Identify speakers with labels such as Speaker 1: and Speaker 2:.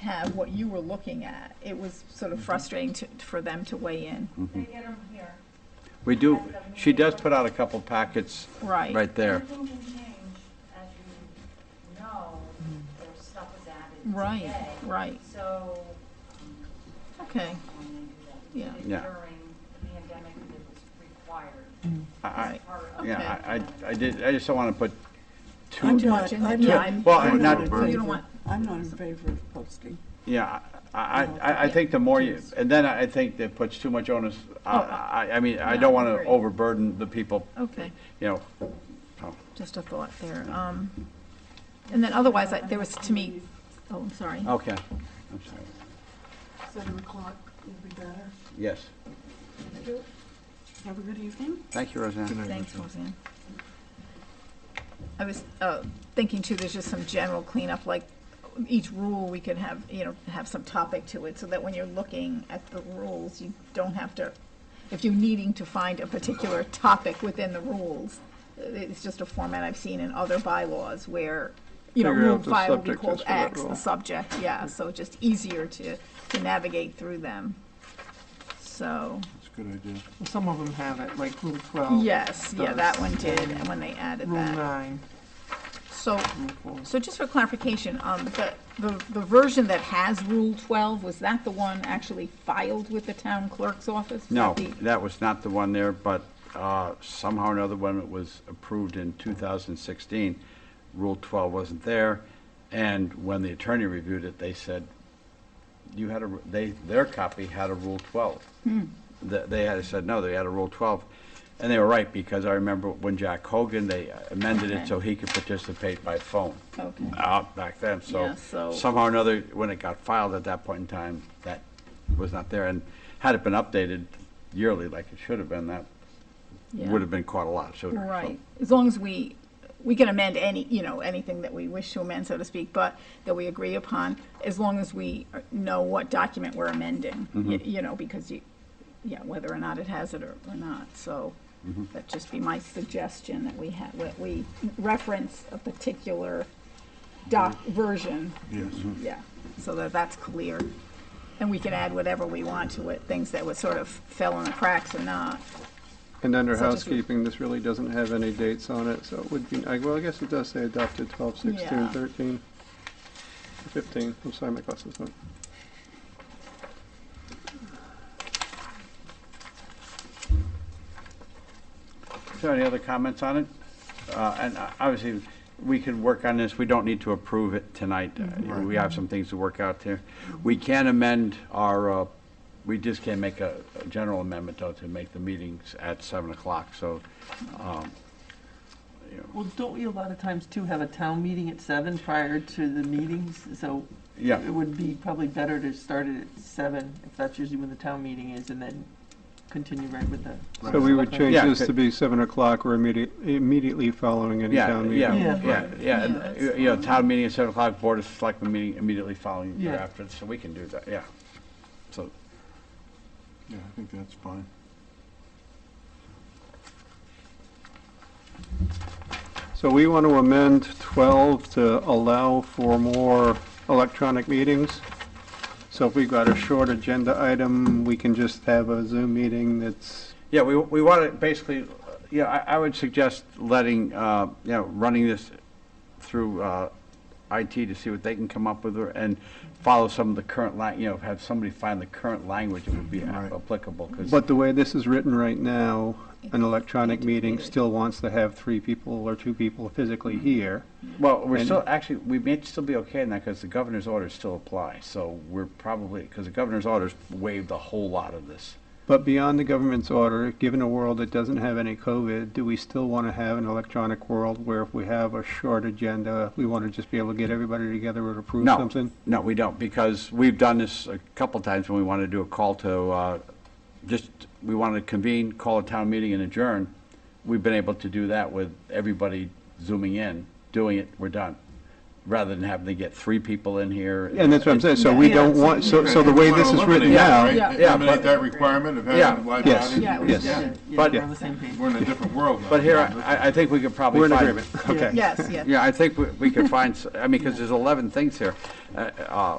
Speaker 1: have what you were looking at. It was sort
Speaker 2: Mm-hmm.
Speaker 1: of frustrating to, for them to weigh in.
Speaker 3: They get them here.
Speaker 2: We do, she does put out a couple packets
Speaker 1: Right.
Speaker 2: right there.
Speaker 3: Everything can change, as you know, their stuff is added
Speaker 1: Right,
Speaker 3: today.
Speaker 1: right.
Speaker 3: So, um,
Speaker 1: Okay,
Speaker 4: Oh,
Speaker 3: when they do
Speaker 1: Yeah.
Speaker 3: that, They did
Speaker 2: Yeah.
Speaker 3: during the pandemic, it was required.
Speaker 1: Mm.
Speaker 2: I- I,
Speaker 3: It's part of
Speaker 2: yeah, I,
Speaker 3: the
Speaker 2: I I did, I just don't want to put
Speaker 4: I'm
Speaker 2: too,
Speaker 4: not-
Speaker 1: Watching the
Speaker 4: I'm not-
Speaker 1: time.
Speaker 2: Well,
Speaker 4: I'm
Speaker 2: not-
Speaker 4: in
Speaker 1: So you don't
Speaker 4: favor-
Speaker 1: want-
Speaker 4: I'm not in favor of posting.
Speaker 2: yeah, I, I- I, I think the more you, and then I think that puts too much onus, I, I, I mean, I
Speaker 1: Yeah, Oh. I
Speaker 2: don't want to
Speaker 1: agree.
Speaker 2: overburden the people,
Speaker 1: okay,
Speaker 2: you know. Oh. so.
Speaker 1: just a thought there. Um, and then otherwise, I- there was to me, oh, I'm sorry.
Speaker 2: Okay, I'm sorry.
Speaker 4: Seven o'clock would be better.
Speaker 2: Yes,
Speaker 4: Have a good evening.
Speaker 2: thank you, Roseanne.
Speaker 1: Thanks, Roseanne. I was uh, thinking too, there's just some general cleanup, like each rule, we could have, you know, have some topic to it, so that when you're looking at the rules, you don't have to, if you're needing to find a particular topic within the rules, it's just a format I've seen in other bylaws where, you know,
Speaker 5: Figure out
Speaker 1: rule
Speaker 5: the
Speaker 1: five will be
Speaker 5: subject
Speaker 1: called
Speaker 5: is for that
Speaker 1: X, the
Speaker 5: rule.
Speaker 1: subject, yeah, so just easier to, to navigate through them. So.
Speaker 5: That's a good idea.
Speaker 6: Well, Some of them have it, like Rule
Speaker 5: Oh,
Speaker 6: 12.
Speaker 1: Yes, yeah,
Speaker 6: does,
Speaker 1: that one did,
Speaker 6: and
Speaker 1: and when they added
Speaker 6: Rule
Speaker 1: that.
Speaker 6: 9,
Speaker 1: So,
Speaker 6: Rule 4.
Speaker 1: so just for clarification, um, the, the, the version that has Rule twelve, was that the one actually filed with the town clerk's office? Was
Speaker 2: No,
Speaker 1: that the-
Speaker 2: that was not the one there, but uh, somehow or another, when it was approved in 2016, Rule 12 wasn't there, and when the attorney reviewed it, they said, you had a, they, their copy had a Rule 12.
Speaker 1: Hmm.
Speaker 2: Th- They had said, no, they had a Rule 12, and they were right, because I remember when Jack Hogan, they amended
Speaker 1: Okay.
Speaker 2: it so he could participate by phone
Speaker 1: Okay,
Speaker 2: uh, back then, so
Speaker 1: Yeah, so-
Speaker 2: somehow or another, when it got filed at that point in time, that was not there, and had it been updated yearly like it should have been, that
Speaker 1: Yeah.
Speaker 2: would have been caught a lot sooner. so.
Speaker 1: right, as long as we, we can amend any, you know, anything that we wish to amend, so to speak, but that we agree upon, as long as we know what document we're amending, y- you know, because you, yeah, whether or not it has it or, or not, so. That'd just be my suggestion, that we have, that we reference a particular doc, version,
Speaker 5: Yes.
Speaker 1: yeah, so that that's clear. And we can add whatever we want to it, things that would sort of fell in the cracks or not.
Speaker 5: And under
Speaker 1: So just-
Speaker 5: housekeeping, this really doesn't have any dates on it, so it would be, I- well, I guess it does say adopted 12, 16,
Speaker 1: Yeah.
Speaker 5: 13, 15. I'm sorry, my glasses aren't.
Speaker 2: So any other comments on it? Uh, And uh, obviously, we can work on this, we don't need to approve it tonight. Uh,
Speaker 1: Mm-hmm.
Speaker 2: We have some things to work out there. We can amend our, uh, we just can't make a a general amendment, though, to make the meetings at 7 o'clock, so, um, you know,
Speaker 7: Well, don't we a lot of times too have a town meeting at seven prior to the meetings? So
Speaker 2: yeah.
Speaker 7: it would be probably better to start it at seven, if that's usually when the town meeting is, and then continue right with the.
Speaker 5: So we would change
Speaker 2: Yeah,
Speaker 5: this
Speaker 2: okay.
Speaker 5: to be 7 o'clock or immediate- immediately following any
Speaker 2: Yeah,
Speaker 5: town meeting.
Speaker 2: yeah,
Speaker 7: Yeah.
Speaker 2: yeah, yeah,
Speaker 1: Yeah,
Speaker 2: and,
Speaker 1: that's
Speaker 2: you know, town meeting at seven o'clock, board of selectmen meeting immediately following
Speaker 7: Yeah.
Speaker 2: thereafter, so we can do that, yeah. So,
Speaker 8: Yeah, I think that's fine.
Speaker 5: So we want to amend 12 to allow for more electronic meetings. So if we've got a short agenda item, we can just have a Zoom meeting that's,
Speaker 2: yeah, we, we want to basically, uh, yeah, I, I would suggest letting, uh, you know, running this through, uh, IT to see what they can come up with, or- and follow some of the current lang, you know, have somebody find the current language that would be
Speaker 8: Right.
Speaker 2: applicable, because,
Speaker 5: but the way this is written right now, an electronic meeting still wants to have three people or two people physically here.
Speaker 2: well, we're
Speaker 5: and-
Speaker 2: still, actually, we may still be okay in that, because the governor's orders still apply, so we're probably, because the governor's orders waived a whole lot of this.
Speaker 5: But beyond the government's order, given a world that doesn't have any COVID, do we still want to have an electronic world where if we have a short agenda, we want to just be able to get everybody together and approve
Speaker 2: No,
Speaker 5: something?
Speaker 2: No, we don't, because we've done this a couple times when we want to do a call to, uh, just, we want to convene, call a town meeting and adjourn. We've been able to do that with everybody zooming in, doing it, we're done, rather than having to get three people in here.
Speaker 5: And that's what I'm saying, so we
Speaker 1: Yeah,
Speaker 5: don't want, so, so the way this is written now,
Speaker 1: Yeah.
Speaker 2: Yeah,
Speaker 8: Eliminate
Speaker 2: but-
Speaker 8: that requirement of
Speaker 2: Yeah.
Speaker 8: having live
Speaker 5: Yes.
Speaker 8: audience.
Speaker 1: Yeah, we
Speaker 5: Yes.
Speaker 7: Yeah,
Speaker 8: Yeah,
Speaker 7: yeah,
Speaker 2: But-
Speaker 7: we're on the same page.
Speaker 8: We're in a different world now.
Speaker 2: But here, I, I think we could probably
Speaker 5: we're in
Speaker 2: find.
Speaker 5: agreement, okay.
Speaker 1: Yes, yes.
Speaker 2: Yeah, I think we- we could find, s- I mean, because there's 11 things here. Uh, uh,